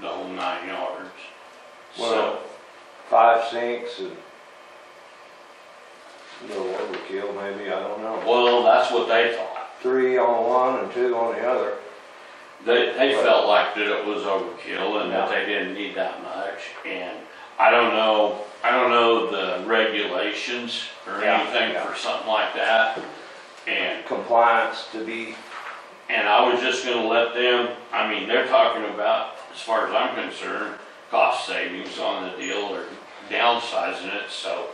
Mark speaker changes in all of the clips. Speaker 1: the whole nine yards. So,
Speaker 2: Well- five sinks and a little overkill maybe, I don't know.
Speaker 1: well, that's what they thought.
Speaker 2: Three on one and two on the other.
Speaker 1: They, they felt like that it was overkill and that they didn't need that much. And I don't know, I don't know the regulations or
Speaker 2: Yeah,
Speaker 1: anything
Speaker 2: yeah.
Speaker 1: for something like that. And
Speaker 2: Compliance to be,
Speaker 1: And I was just gonna let them, I mean, they're talking about, as far as I'm concerned, cost savings on the deal or downsizing it, so.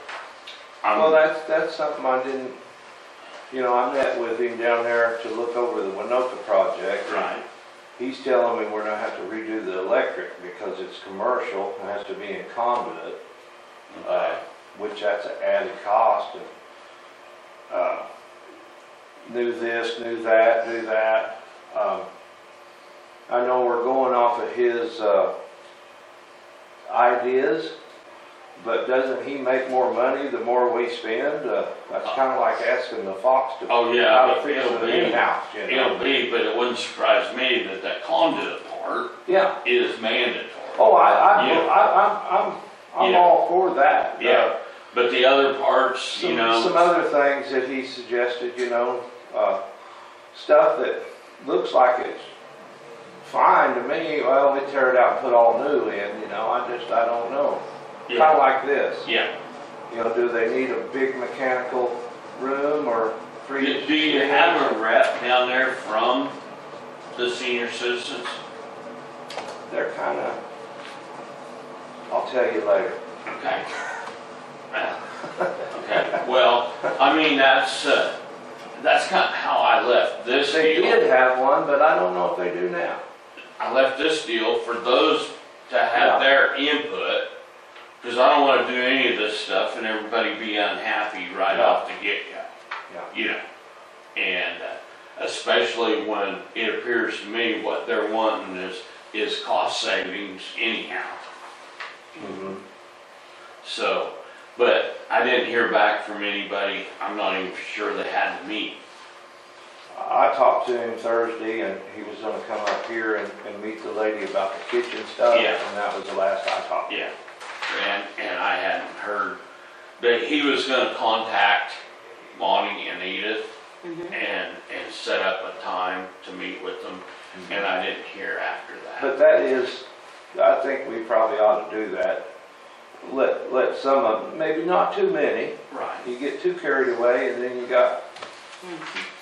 Speaker 2: well,
Speaker 1: I'm,
Speaker 2: that's, that's something I didn't, you know, I met with him down there to look over the Winoka project.
Speaker 1: right,
Speaker 2: He's telling me we're gonna have to redo the electric because it's commercial and has to be in conduit,
Speaker 1: uh,
Speaker 2: which that's an added cost and, uh, do this, do that, do that. Um, I know we're going off of his, uh, ideas, but doesn't he make more money the more we spend? Uh, that's kinda like asking the fox to,
Speaker 1: oh,
Speaker 2: how
Speaker 1: yeah,
Speaker 2: to
Speaker 1: but
Speaker 2: fix
Speaker 1: it'll
Speaker 2: an
Speaker 1: be,
Speaker 2: in-house, you know?
Speaker 1: it'll be, but it wouldn't surprise me that that conduit part
Speaker 2: Yeah.
Speaker 1: is mandatory.
Speaker 2: Oh, I, I,
Speaker 1: Yeah.
Speaker 2: I, I'm, I'm, I'm
Speaker 1: Yeah.
Speaker 2: all for that.
Speaker 1: Yeah,
Speaker 2: Uh,
Speaker 1: but the other parts, you
Speaker 2: Some,
Speaker 1: know.
Speaker 2: some other things that he suggested, you know, uh, stuff that looks like it's fine to me, well, we tear it out and put all new in, you know, I just, I don't know. Kinda
Speaker 1: Yeah,
Speaker 2: like this,
Speaker 1: yeah.
Speaker 2: you know, do they need a big mechanical room or three?
Speaker 1: Do do you have a rep down there from the senior citizens?
Speaker 2: They're kinda, I'll tell you later.
Speaker 1: Okay. Okay, well, I mean, that's, uh, that's kind of how I left this
Speaker 2: They
Speaker 1: deal.
Speaker 2: did have one, but I don't know if they do now.
Speaker 1: I left this deal for those to have
Speaker 2: Yeah.
Speaker 1: their input, because I don't want to do any of this stuff and everybody be unhappy right
Speaker 2: Yeah.
Speaker 1: off the get-go.
Speaker 2: Yeah.
Speaker 1: You know, and uh, especially when it appears to me what they're wanting is, is cost savings anyhow. So, but I didn't hear back from anybody. I'm not even sure they had to meet.
Speaker 2: I talked to him Thursday and he was gonna come up here and, and meet the lady about the kitchen stuff.
Speaker 1: Yeah.
Speaker 2: And that was the last I talked.
Speaker 1: Yeah. And, and I hadn't heard, but he was gonna contact Bonnie and Edith and, and set up a time to meet with them.
Speaker 2: Mm-hmm.
Speaker 1: And I didn't hear after that.
Speaker 2: But that is, I think we probably ought to do that. Let, let some of, 'em- maybe not too many,
Speaker 1: Right.
Speaker 2: you get too carried away and then you got,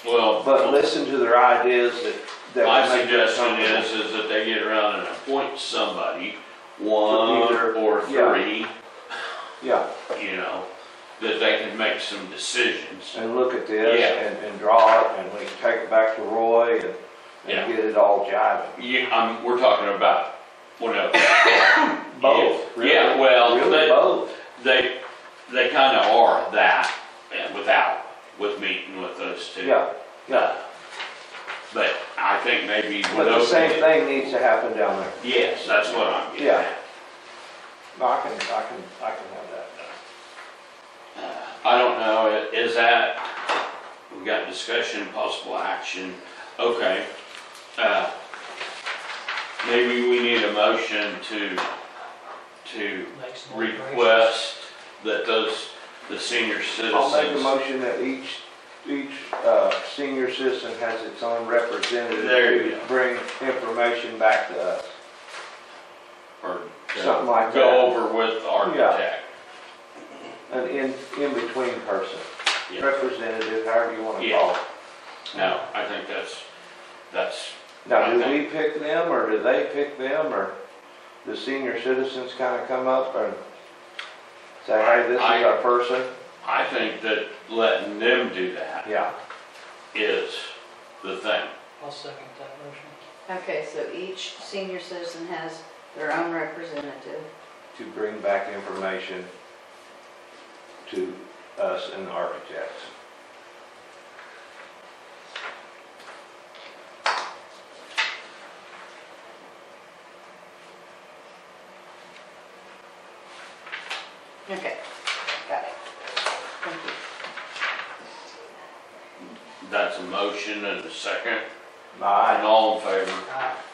Speaker 1: Well,
Speaker 2: but listen to their ideas that. that
Speaker 1: my
Speaker 2: would make it
Speaker 1: suggestion
Speaker 2: something.
Speaker 1: is, is that they get around and appoint somebody, one
Speaker 2: Either-
Speaker 1: or
Speaker 2: yeah.
Speaker 1: three,
Speaker 2: Yeah,
Speaker 1: you know, that they can make some decisions.
Speaker 2: and look at this
Speaker 1: Yeah.
Speaker 2: and, and draw it and we can take it back to Roy and,
Speaker 1: Yeah.
Speaker 2: and get it all jiving.
Speaker 1: Yeah, um, we're talking about whatever.
Speaker 2: Both, really.
Speaker 1: Yeah, well,
Speaker 2: Really
Speaker 1: they-
Speaker 2: both.
Speaker 1: They, they kind of are that uh, without, with meeting with us too.
Speaker 2: Yeah, yeah.
Speaker 1: But I think maybe with
Speaker 2: But the
Speaker 1: those.
Speaker 2: same thing needs to happen down there.
Speaker 1: Yes, that's what I'm getting
Speaker 2: Yeah.
Speaker 1: at.
Speaker 2: No, I can, I can, I can have that.
Speaker 1: I don't know, i- is that, we got discussion, possible action, okay. uh, Maybe we need a motion to, to request that those, the senior
Speaker 2: I'll make a
Speaker 1: citizens.
Speaker 2: motion that each, each, uh, senior citizen has its own representative
Speaker 1: There you
Speaker 2: to
Speaker 1: go.
Speaker 2: bring information back to us.
Speaker 1: Or to
Speaker 2: Something like that.
Speaker 1: Go over with the architect.
Speaker 2: An in, in-between person,
Speaker 1: Yeah.
Speaker 2: representative, however you wanna
Speaker 1: Yeah.
Speaker 2: call it.
Speaker 1: No, I think that's, that's,
Speaker 2: Now, do
Speaker 1: Okay.
Speaker 2: we pick them, or do they pick them, or the senior citizens kinda come up and say, hey, this is
Speaker 1: I-
Speaker 2: our person?
Speaker 1: I think that letting them do that
Speaker 2: Yeah,
Speaker 1: is the thing.
Speaker 3: I'll second that motion.
Speaker 4: Okay, so each senior citizen has their own representative.
Speaker 2: to bring back information to us and the architects.
Speaker 4: Okay, got it. Thank you.
Speaker 1: That's a motion and a second,
Speaker 2: My
Speaker 1: and all in favor.
Speaker 3: Aye.